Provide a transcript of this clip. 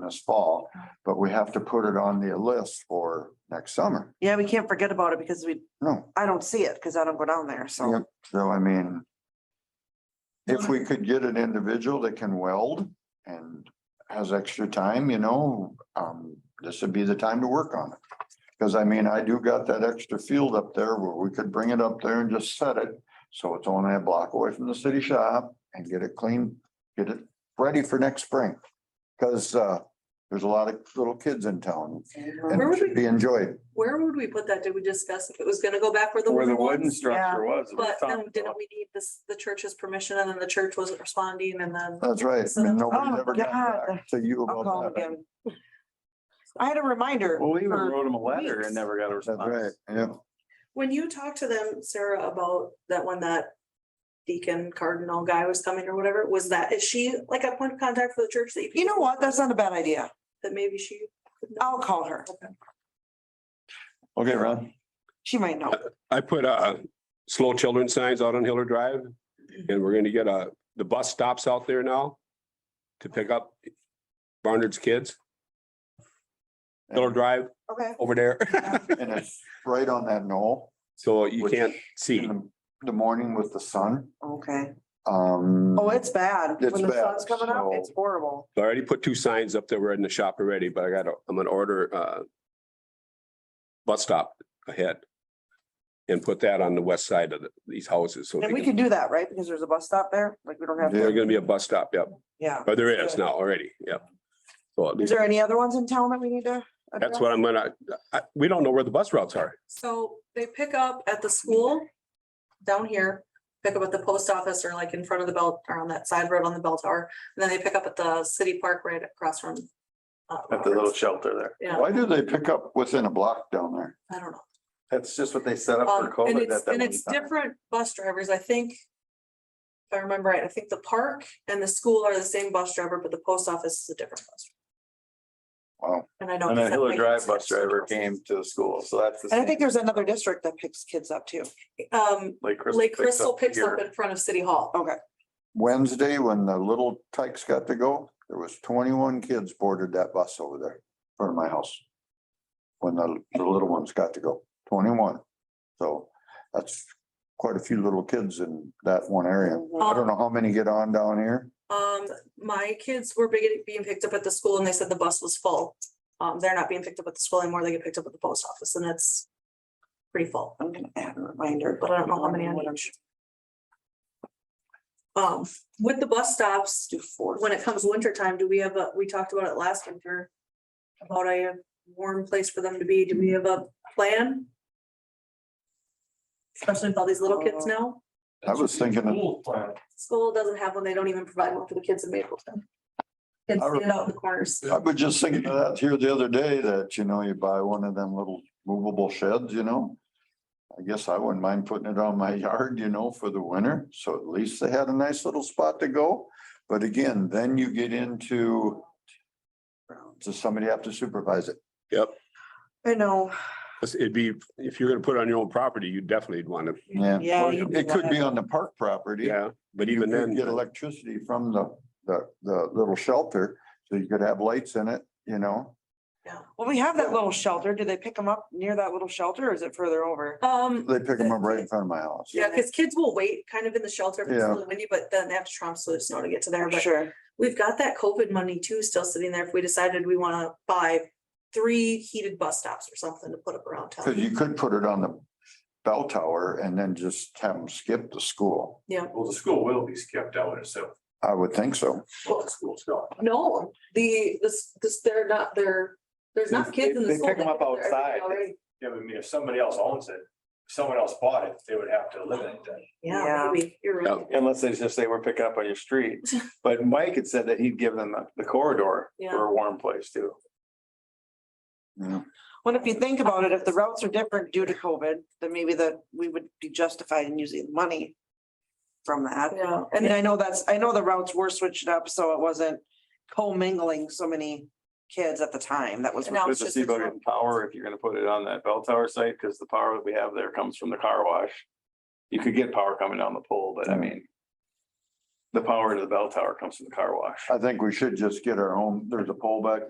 this fall, but we have to put it on the list for next summer. Yeah, we can't forget about it because we, No, I don't see it because I don't go down there, so. Yep. so I mean, if we could get an individual that can weld and has extra time, you know, um, this would be the time to work on it. Cause I mean, I do got that extra field up there where we could bring it up there and just set it. So it's only a block away from the city shop and get it clean, get it ready for next spring. Cause, uh, there's a lot of little kids in town and Where it would should we, be enjoyed. where would we put that? Did we discuss if it was gonna go back where the? Where the wooden wooden was? structure was. it was But then talked didn't about. we need this, the church's permission and then the church wasn't responding and then? Uh. That's right. I mean, nobody's Oh, ever got God. back to you I'll call about him that. again. I had a reminder. Well, we even for- wrote them a letter weeks. and never got a That's right. response. Yeah. When you talked to them, Sarah, about that when that deacon cardinal guy was coming or whatever, was that, is she like a point of contact for the church that you? could- You know what? That's not a bad idea. That maybe she. I'll call her. Okay, Ron. She might know. I put uh slow children signs out on Hiller Drive. And we're gonna get a, the bus stops out there now to pick up Barnard's kids. Hiller Drive Okay. over there, And it's right on that knoll. so you Which- can't see. in the- The morning with the sun, Okay. um. Oh, it's bad. It's When the bad, sun's coming up, it's so- horrible. I already put two signs up that were in the shop already, but I gotta, I'm gonna order uh bus stop ahead and put that on the west side of the- these houses. So And we they can can- do that, right? Because there's a bus stop there. Like, we don't have there's to, gonna be a bus stop, yep. yeah. But there is now already, yep. So at Is least there any other ones in town that we need to? that's address? what I'm gonna, I, we don't know where the bus routes are. So they pick up at the school down here, pick up at the post office or like in front of the bell or on that side road on the bell tower. And then they pick up at the city park right across from. uh, At the little Roberts. shelter there. Yeah, Why do they pick up within a block down there? I don't know. That's just what they set up for Um, And COVID. it's, at that and one it's time. different bus drivers, I think. If I remember right, I think the park and the school are the same bus driver, but the post office is a different bus. Wow, driver. And I know. And a that Hiller might- Drive bus driver came to the school, so that's the And I think same. there's another district that picks kids up too. Um, Lake Crystal Lake picks Crystal picks here. up in front of City Hall. Okay. Wednesday, when the little tykes got to go, there was twenty-one kids boarded that bus over there in front of my house. When the, the little ones got to go, twenty-one. So that's quite a few little kids in that one area. I don't know how many get on down here. Um, my kids were being, being picked up at the school and they said the bus was full. Um, they're not being picked up at the school anymore. They get picked up at the post office and it's pretty full, I'm gonna add a reminder, but I don't know how many on each. Um, with the bus stops, do four. when it comes winter time, do we have a, we talked about it last winter. About a warm place for them to be. Do we have a plan? Especially with all these little Uh, kids now. I was thinking, of- School doesn't have one. They don't even provide one for the kids in Mapleton. Kids I re- stand out in the corners. I was just thinking of that here the other day that, you know, you buy one of them little movable sheds, you know? I guess I wouldn't mind putting it on my yard, you know, for the winter, so at least they had a nice little spot to go. But again, then you get into does somebody have to supervise it? Yep, I know. it'd be, if you're gonna put it on your own property, you definitely want to, Yeah. Yeah. you do It could be that. on the park property. yeah, but You even could then. Get electricity from the, the, the little shelter, so you could have lights in it, you know? Well, we have that little shelter. Do they pick them up near that little shelter or is it further over? Um, They pick them up right in front of my house. yeah, because kids will wait kind of in the shelter if it's Yeah. really windy, but then they have to tromp through the snow to get to there. But Sure. we've got that COVID money too still sitting there if we decided we want to buy three heated bus stops or something to put up around Cause town. you could put it on the bell tower and then just have them skip the school. Yeah, Well, the school will be skipped out, so. I would think so. Well, school's gone. no, the, this, this, they're not, they're, there's not They- kids in the they school. pick 'em up They're everything outside. already. Yeah, but I mean, if somebody else owns it, if someone else bought it, they would have to eliminate that. Yeah. Yeah, maybe, you're Yeah. right. Unless they just say we're picking up on your street. But Mike had said that he'd give them the- the corridor Yeah. for a warm place too. Yeah. Well, if you think about it, if the routes are different due to COVID, then maybe that we would be justified in using money from that. Yeah, And and I know that's, I know the routes were switched up, so it wasn't co-mingling so many kids at the time. That was. And now Good it's to just see about a- getting power if you're gonna put it on that bell tower site, because the power that we have there comes from the car wash. You could get power coming down the pole, but I mean. The power to the bell tower comes from the car wash. I think we should just get our own, there's a pole back